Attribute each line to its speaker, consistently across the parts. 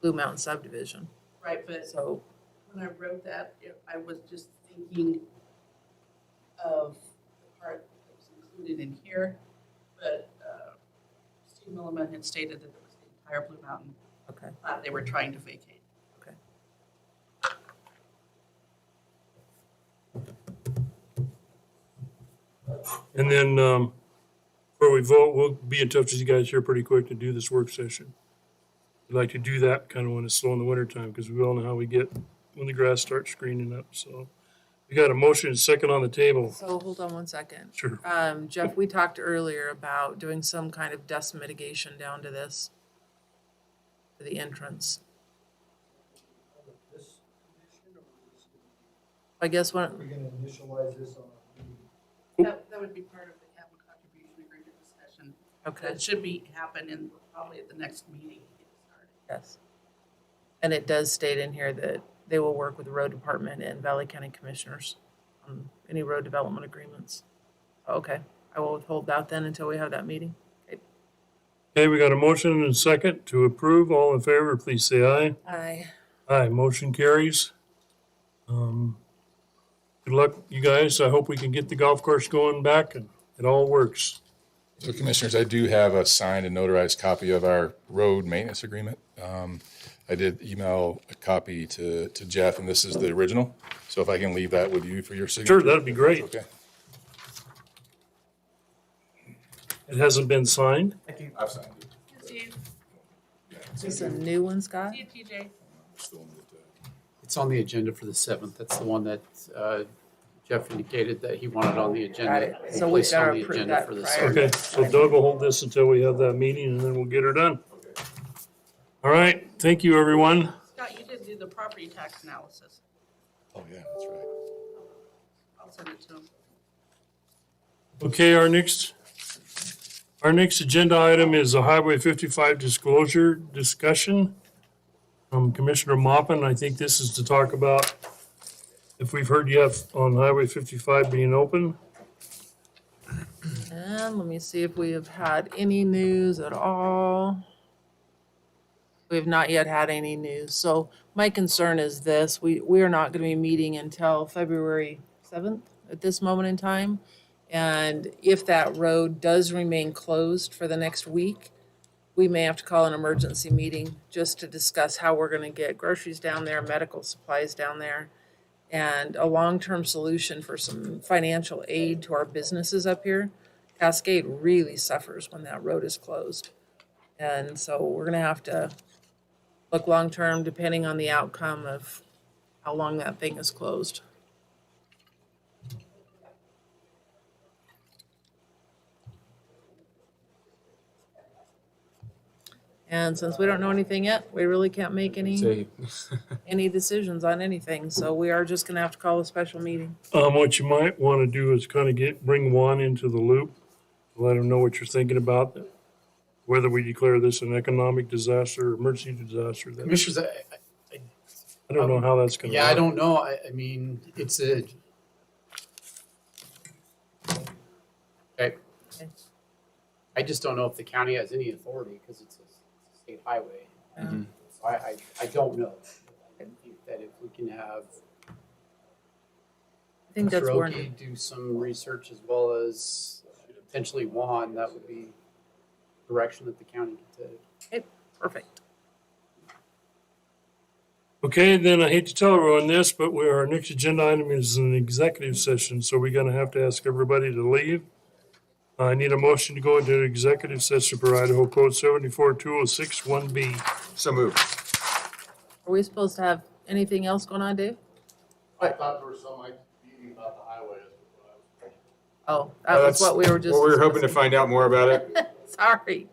Speaker 1: Blue Mountain subdivision,
Speaker 2: Right, but
Speaker 1: so.
Speaker 2: when I wrote that, it- I was just thinking of the part that was included in here, but uh, Steve Milliman had stated that it was the entire Blue Mountain
Speaker 1: Okay.
Speaker 2: plat they were trying to vacate.
Speaker 1: Okay.
Speaker 3: And then, um, before we vote, we'll be in touch with you guys here pretty quick to do this work session. I'd like to do that kind of when it's slow in the wintertime, because we all know how we get when the grass starts greening up, so. We got a motion and second on the table.
Speaker 1: So hold on one second.
Speaker 3: Sure.
Speaker 1: Um, Jeff, we talked earlier about doing some kind of dust mitigation down to this, to the entrance.
Speaker 4: This condition, or we're just gonna-
Speaker 1: I guess
Speaker 4: are
Speaker 1: one,
Speaker 4: we gonna initialize this on our meeting?
Speaker 2: That, that would be part of the capital contribution agreement discussion.
Speaker 1: okay,
Speaker 2: That should be happening probably at the next meeting. to get started.
Speaker 1: yes. And it does state in here that they will work with the road department and Valley County Commissioners on any road development agreements. Okay, I will withhold that then until we have that meeting.
Speaker 3: Okay, we got a motion and second to approve. All in favor, please say aye.
Speaker 1: Aye.
Speaker 3: Aye, motion carries. Um, Good luck, you guys. I hope we can get the golf course going back and it all works.
Speaker 5: So commissioners, I do have a signed and notarized copy of our road maintenance agreement. Um, I did email a copy to, to Jeff, and this is the original. So if I can leave that with you for your signature.
Speaker 3: Sure, that'd be great.
Speaker 5: Okay.
Speaker 3: It hasn't been signed.
Speaker 5: I've signed it.
Speaker 2: Steve,
Speaker 1: Is this a new one, Scott?
Speaker 2: see you, TJ.
Speaker 5: Still uh, need to-
Speaker 6: It's on the agenda for the seventh. That's the one that uh, Jeff indicated that he wanted on the
Speaker 1: Got
Speaker 6: agenda.
Speaker 1: it.
Speaker 6: and
Speaker 1: So we
Speaker 6: placed on
Speaker 1: gotta
Speaker 6: the
Speaker 1: approve
Speaker 6: agenda
Speaker 1: that
Speaker 6: for the
Speaker 1: prior.
Speaker 6: 7th.
Speaker 3: Okay, so Doug will hold this until we have that meeting and then we'll get her done. All right, thank you, everyone.
Speaker 2: Scott, you did do the property tax analysis.
Speaker 5: Oh, yeah, that's right.
Speaker 2: I'll send it to him.
Speaker 3: Okay, our next, our next agenda item is a Highway fifty-five disclosure discussion. From Commissioner Moppin, I think this is to talk about if we've heard yet on Highway fifty-five being open.
Speaker 1: And let me see if we have had any news at all. We have not yet had any news. So my concern is this, we, we are not going to be meeting until February 7th at this moment in time. And if that road does remain closed for the next week, we may have to call an emergency meeting just to discuss how we're going to get groceries down there, medical supplies down there, and a long-term solution for some financial aid to our businesses up here. Cascade really suffers when that road is closed. And so we're gonna have to look long-term, depending on the outcome of how long that thing is closed. And since we don't know anything yet, we really can't make any, any decisions on anything, so we are just gonna have to call a special meeting.
Speaker 3: Um, what you might want to do is kind of get, bring Juan into the loop, let him know what you're thinking about, whether we declare this an economic disaster, emergency disaster. that-
Speaker 6: Commissioners, I, I-
Speaker 3: I don't know how that's gonna.
Speaker 6: yeah, I
Speaker 3: work.
Speaker 6: don't know. I, I mean, it's a. Okay. I just don't know if the county has any authority because it's a it's a state highway.
Speaker 1: Mhm.
Speaker 6: So I, I, I don't know. I think That if we can have
Speaker 1: I think that's warranted.
Speaker 6: Kuroki do some research as well as potentially Juan, that would be direction that the county could take.
Speaker 1: Perfect.
Speaker 3: Okay, then I hate to tell everyone this, but we, our next agenda item is an executive session, so we're gonna have to ask everybody to leave. I need a motion to go into executive session for Idaho Code seventy-four two oh six one B.
Speaker 4: So moved.
Speaker 1: Are we supposed to have anything else going on, Dave?
Speaker 7: I thought there was some like meeting about the highway.
Speaker 1: Oh, that was
Speaker 7: Uh, that's
Speaker 1: what we were just.
Speaker 7: Well, we were hoping to
Speaker 1: discussing.
Speaker 7: find out more about it.
Speaker 1: Sorry.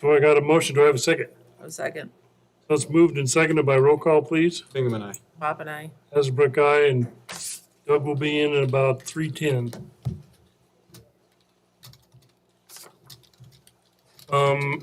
Speaker 3: So I got a motion, do I have a second?
Speaker 1: A second.
Speaker 3: That's moved and seconded by roll call, please.
Speaker 7: Bingaman, aye.
Speaker 1: Bob and I.
Speaker 3: Hasbrook, aye, and Doug will be in at about three ten. Um,